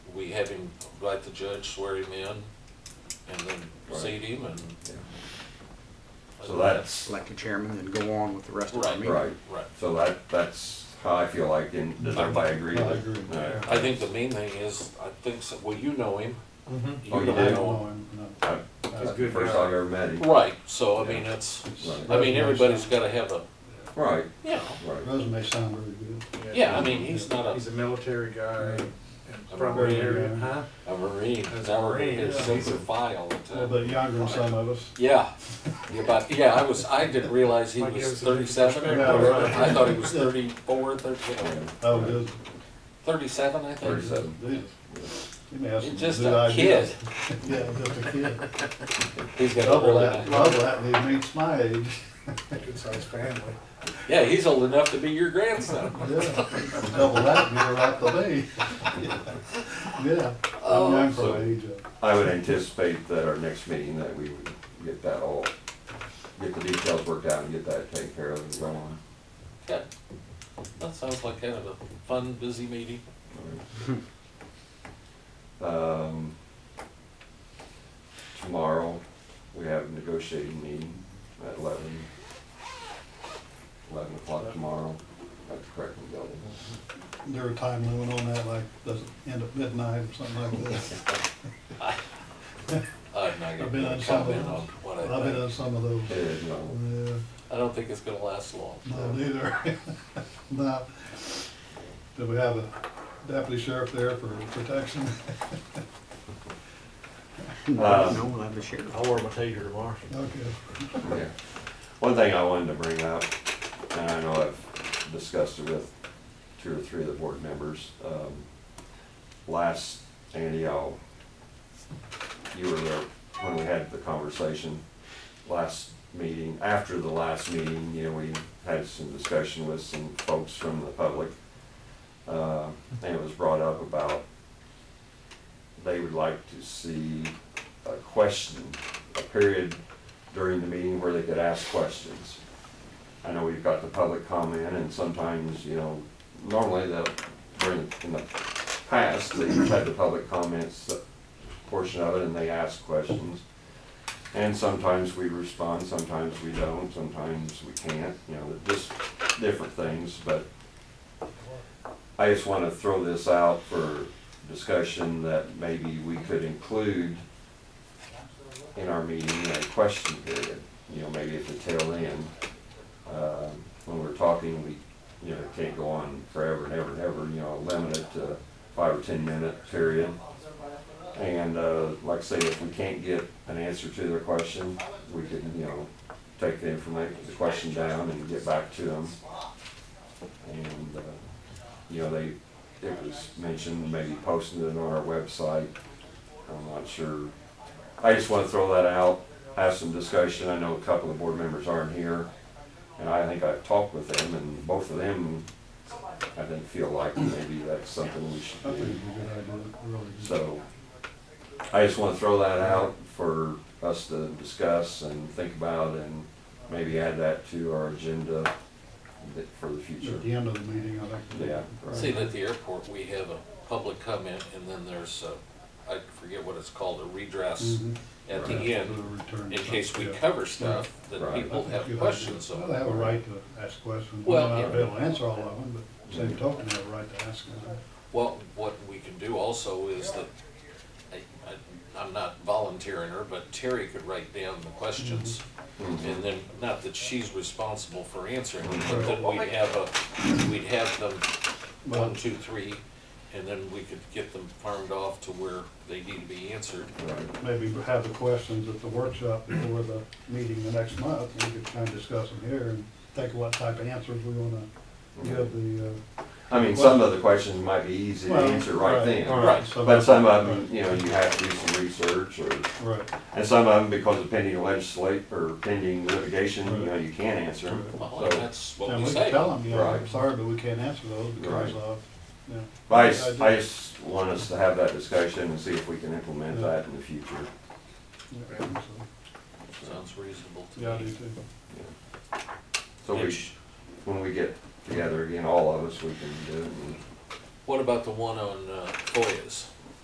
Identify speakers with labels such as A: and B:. A: we have him, like the judge, swear him in and then
B: Right.
A: seat him and.
B: Yeah. So that's,
C: elect a chairman and go on with the rest of our
A: Right.
C: meeting.
B: right,
A: Right.
B: so that, that's how I feel like, and does everybody agree?
D: I
B: with-
D: agree.
B: No.
A: I think the main thing is, I think, so- well, you know him.
D: Mm-hmm.
B: Oh, you
A: don't
B: do?
A: know
B: I-
D: That's
B: First I've ever met
A: him.
B: him.
A: Right, so I mean, that's, I mean, everybody's gotta have a,
B: Right,
A: you know,
B: right.
D: Resume sound very good.
A: yeah, I mean, he's not
E: He's
A: a,
E: a military guy
D: Yeah.
E: and
A: A
E: probably,
A: Marine.
E: area- huh?
A: a marine,
E: That's
A: he's our,
E: Marine,
A: his
E: yeah.
A: sense of file.
D: A little bit younger than some of us.
A: Yeah, yeah, but, yeah, I was, I didn't realize he
E: Like it
A: was
E: was a
A: thirty-seven or
D: Yeah,
A: whatever.
D: right.
A: I thought he was thirty-four, thirty,
D: Oh, good.
A: thirty-seven, I think.
B: Thirty-seven.
D: Jesus. You may have some
A: He's just
D: good
A: a
D: ideas.
A: kid.
D: Yeah, just a kid.
A: He's got a
D: Double
A: really nice.
D: that, double that, and he meets my age.
E: Good sized family.
A: Yeah, he's old enough to be your grandson.
D: Yeah, double that, you're right to me. Yeah, Oh,
A: Oh,
D: I'm young for my age. uh,
B: I would anticipate that our next meeting, that we would get that all, get the details worked out and get that taken care of and going.
A: Okay. That sounds like kind of a fun, busy meeting.
B: Um, tomorrow, we have a negotiating meeting at eleven. Eleven o'clock tomorrow at the Correcting Building.
D: There a time limit on that, like, does it end at midnight or something like that?
A: I'm not
D: I've been
A: Uh, gonna
D: on some of
A: comment
D: those.
A: on what
D: I've been
A: I
D: on
A: think.
D: some of those.
B: It is, no,
D: Yeah,
A: I don't think it's gonna last long.
D: no, neither. No. Do we have a deputy sheriff there for protection?
B: Uh,
C: No, we'll have the sheriff.
E: I'll wear my taser tomorrow.
D: Okay.
B: yeah. One thing I wanted to bring up, and I know I've discussed it with two or three of the board members, um, last, Andy, I'll, you were there when we had the conversation last meeting, after the last meeting, you know, we had some discussion with some folks from the public. Uh, and it was brought up about they would like to see a question, a period during the meeting where they could ask questions. I know we've got the public comment and sometimes, you know, normally they'll, during, in the past, they've had the public comments uh, portion of it and they ask questions. And sometimes we respond, sometimes we don't, sometimes we can't, you know, just different things, but I just wanna throw this out for discussion that maybe we could include in our meeting a question period, you know, maybe at the tail end. Um, When we're talking, we, you know, can't go on forever and ever and ever, you know, limit it to five or ten minute period. And uh, like I say, if we can't get an answer to their question, we can, you know, take the information, the question down and get back to them. And, uh, you know, they, it was mentioned, maybe posting it on our website. I'm not sure. I just want to throw that out, have some discussion. I know a couple of board members aren't here. And I think I've talked with them and both of them, I think, feel like maybe that's something we should
D: I think
B: do.
D: it's a good idea, really.
B: So I just want to throw that out for us to discuss and think about and maybe add that to our agenda that- for the future.
D: At the end of the meeting, I think.
B: Yeah.
A: See, at the airport, we have a public comment and then there's, a- I forget what it's called, a redress
D: Mhm.
A: at
B: Right.
A: the end.
D: We'll return
A: In case we
D: something, yeah.
A: cover stuff that
B: Right.
A: people
D: I think
A: have
D: you
A: questions
D: Well, they
A: on.
D: have a right to ask questions. They
A: Well,
D: might not be
A: yeah.
D: able to answer all of them, but same token, they have a right to ask them.
A: Well, what we can do also is that, I- I- I'm not volunteering her, but Terry could write down the questions.
D: Mm-hmm.
B: Mhm.
A: And then, not that she's responsible for answering, them, but then we'd have a, we'd have them one,
D: But
A: two, three, and then we could get them farmed off to where they need to be answered.
B: Right.
D: maybe have the questions at the workshop before the meeting the next month, we could kind of discuss them here and think what type of answers we want to give the. uh,
B: I mean, some of the questions might be easy to answer right then,
A: Right.
D: some
B: but
D: of-
B: some of them, you know, you have to do some research or,
D: Right,
B: and some of them, because of pending legislate or pending litigation, you know, you can't answer them.
A: Well, and
B: So,
A: that's what
D: and
A: we
D: we
A: say.
D: can tell them, you know, I'm
B: Right.
D: sorry, but we can't answer those because
B: Right.
D: of, you know.
B: but I just, I just want us to have that discussion and see if we can implement that in the future.
D: Yeah, so,
A: Sounds reasonable to me.
D: Yeah, I do too.
B: So
A: And
B: we,
A: sh-
B: when we get together again, all of us, we can do it. and-
A: What about the one on uh, FOIAs?